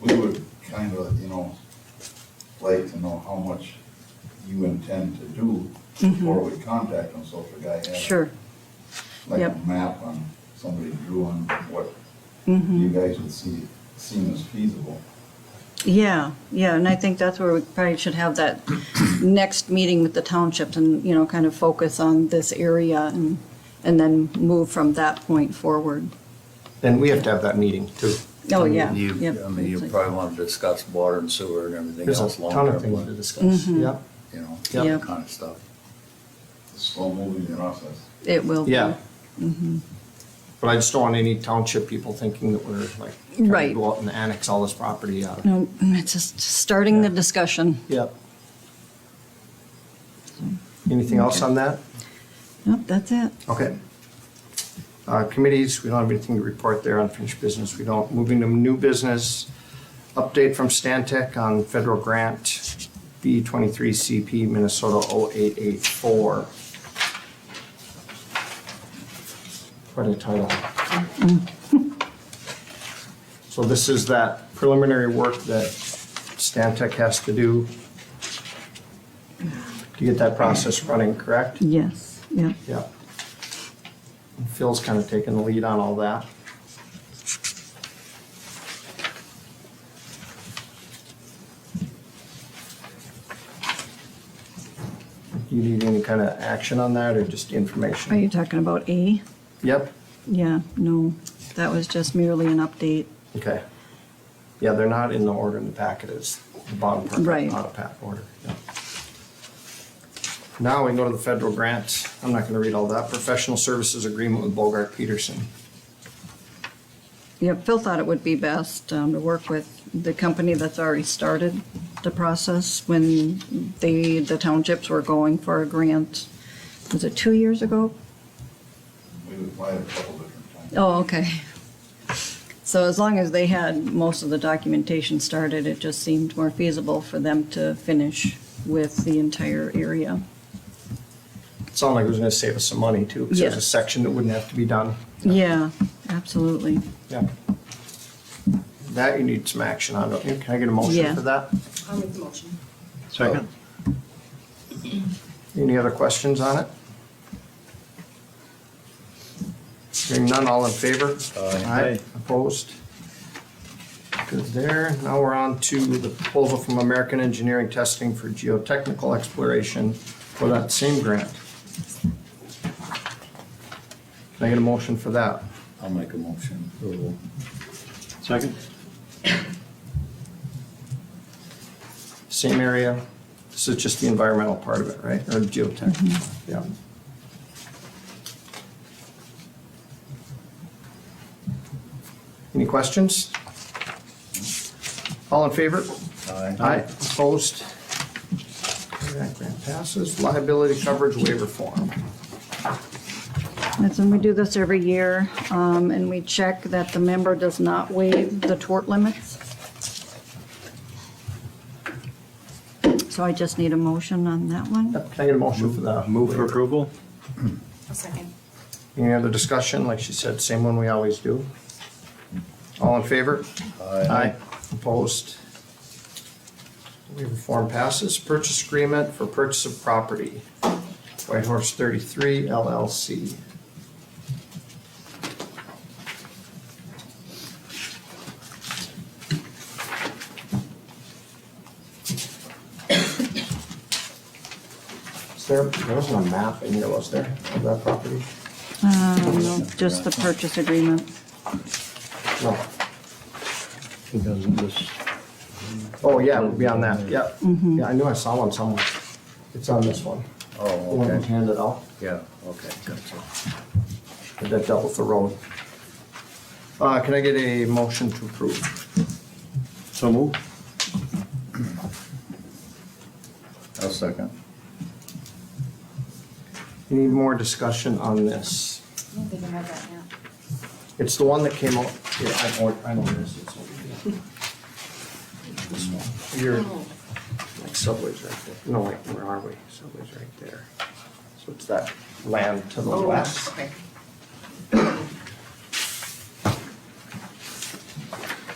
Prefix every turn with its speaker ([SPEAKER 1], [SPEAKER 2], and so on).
[SPEAKER 1] we would kind of, you know, like to know how much you intend to do before we contact them, so if a guy had.
[SPEAKER 2] Mm-hmm. Sure,
[SPEAKER 1] Like a
[SPEAKER 2] yep.
[SPEAKER 1] map on, somebody drew on what you
[SPEAKER 2] mhm.
[SPEAKER 1] guys would see, seem as feasible.
[SPEAKER 2] Yeah, yeah, and I think that's where we probably should have that next meeting with the townships and, you know, kind of focus on this area and, and then move from that point forward.
[SPEAKER 3] And we have to have that meeting too.
[SPEAKER 2] Oh, yeah,
[SPEAKER 4] You,
[SPEAKER 2] yep.
[SPEAKER 4] I mean, you probably want to discuss water and sewer and everything
[SPEAKER 3] There's a
[SPEAKER 4] else
[SPEAKER 3] ton of things to
[SPEAKER 4] long-term,
[SPEAKER 3] discuss,
[SPEAKER 2] Mhm.
[SPEAKER 3] yeah.
[SPEAKER 4] you know,
[SPEAKER 2] Yep.
[SPEAKER 4] that kind of stuff.
[SPEAKER 1] Slow moving process.
[SPEAKER 2] It will be.
[SPEAKER 3] Yeah. But I just don't want any township people thinking that we're like, trying
[SPEAKER 2] Right. Mm.
[SPEAKER 3] to go out and annex all this property out.
[SPEAKER 2] No, it's just starting the discussion.
[SPEAKER 3] Yep. Anything else on that?
[SPEAKER 2] Nope, that's it.
[SPEAKER 3] Okay. Uh, Committees, we don't have anything to report there, unfinished business, we don't. Moving to new business, update from Stantec on federal grant B23CP Minnesota 0884. Quite a title. So this is that preliminary work that Stantec has to do to get that process running, correct?
[SPEAKER 2] Yes, yeah.
[SPEAKER 3] Yeah. Phil's kind of taking the lead on all that. Do you need any kind of action on that or just
[SPEAKER 2] Are you
[SPEAKER 3] information?
[SPEAKER 2] talking about A?
[SPEAKER 3] Yep,
[SPEAKER 2] Yeah, no, that was just merely an update.
[SPEAKER 3] okay. Yeah, they're not in the order in the packet, it's the bottom part,
[SPEAKER 2] Right.
[SPEAKER 3] not a pack order. yeah. Now we can go to the federal grant. I'm not gonna read all that. Professional services agreement with Bogart Peterson.
[SPEAKER 2] Yeah, Phil thought it would be best um, to work with the company that's already started the process when the, the townships were going for a grant. Was it two years ago?
[SPEAKER 1] We applied a couple different times.
[SPEAKER 2] Oh, okay. So as long as they had most of the documentation started, it just seemed more feasible for them to finish with the entire area.
[SPEAKER 3] It sounded like it was gonna save us some money too, because there's a
[SPEAKER 2] Yes.
[SPEAKER 3] section that wouldn't have to be done.
[SPEAKER 2] Yeah, absolutely.
[SPEAKER 3] Yeah. That you need some action on, don't you? Can I get a
[SPEAKER 2] Yeah.
[SPEAKER 3] motion for that?
[SPEAKER 5] I'll make the motion.
[SPEAKER 3] Second. Any other questions on it? Hearing none, all in favor? Aye. Opposed? Good there. Now we're on to the proposal from American Engineering Testing for Geotechnical Exploration for that same grant. Can I get a motion for that?
[SPEAKER 4] I'll make a motion. approval.
[SPEAKER 3] Second. Same area, this is just the environmental part of it, right, or geotech, yeah. Any questions? All in favor?
[SPEAKER 4] Aye.
[SPEAKER 3] Opposed? Okay, That grant passes, liability coverage waiver form.
[SPEAKER 2] That's when we do this every year, um, and we check that the member does not waive the tort limits. So I just need a motion on that one.
[SPEAKER 3] Yep, Can I get a motion for that?
[SPEAKER 6] Move for approval?
[SPEAKER 5] A second.
[SPEAKER 3] Any other discussion? Like she said, same one we always do. All in favor? Aye. Opposed? Waiver form passes. Purchase agreement for purchase of property. White Horse 33 LLC. Is there, there wasn't a map in here, was there, of that property?
[SPEAKER 2] Um, no, just the purchase agreement.
[SPEAKER 3] No.
[SPEAKER 4] She doesn't just.
[SPEAKER 3] Oh, yeah, it would be on that, yep. Yeah, I knew I saw one somewhere. It's on this one. The
[SPEAKER 4] Oh,
[SPEAKER 3] one that was
[SPEAKER 4] okay.
[SPEAKER 3] handed out,
[SPEAKER 4] Yeah, okay, gotcha.
[SPEAKER 3] that dealt with the road. Uh, can I get a motion to approve?
[SPEAKER 6] So move.
[SPEAKER 4] I'll second.
[SPEAKER 3] Any more discussion on this?
[SPEAKER 5] I don't think I have that now.
[SPEAKER 3] It's the one that came out, yeah, I know, I know this, it's over here. This one, you're,
[SPEAKER 5] Oh,
[SPEAKER 3] like Subway's right there, no, wait, where are we? Subway's right there. So it's that land to the
[SPEAKER 5] Oh,
[SPEAKER 3] west.
[SPEAKER 5] okay.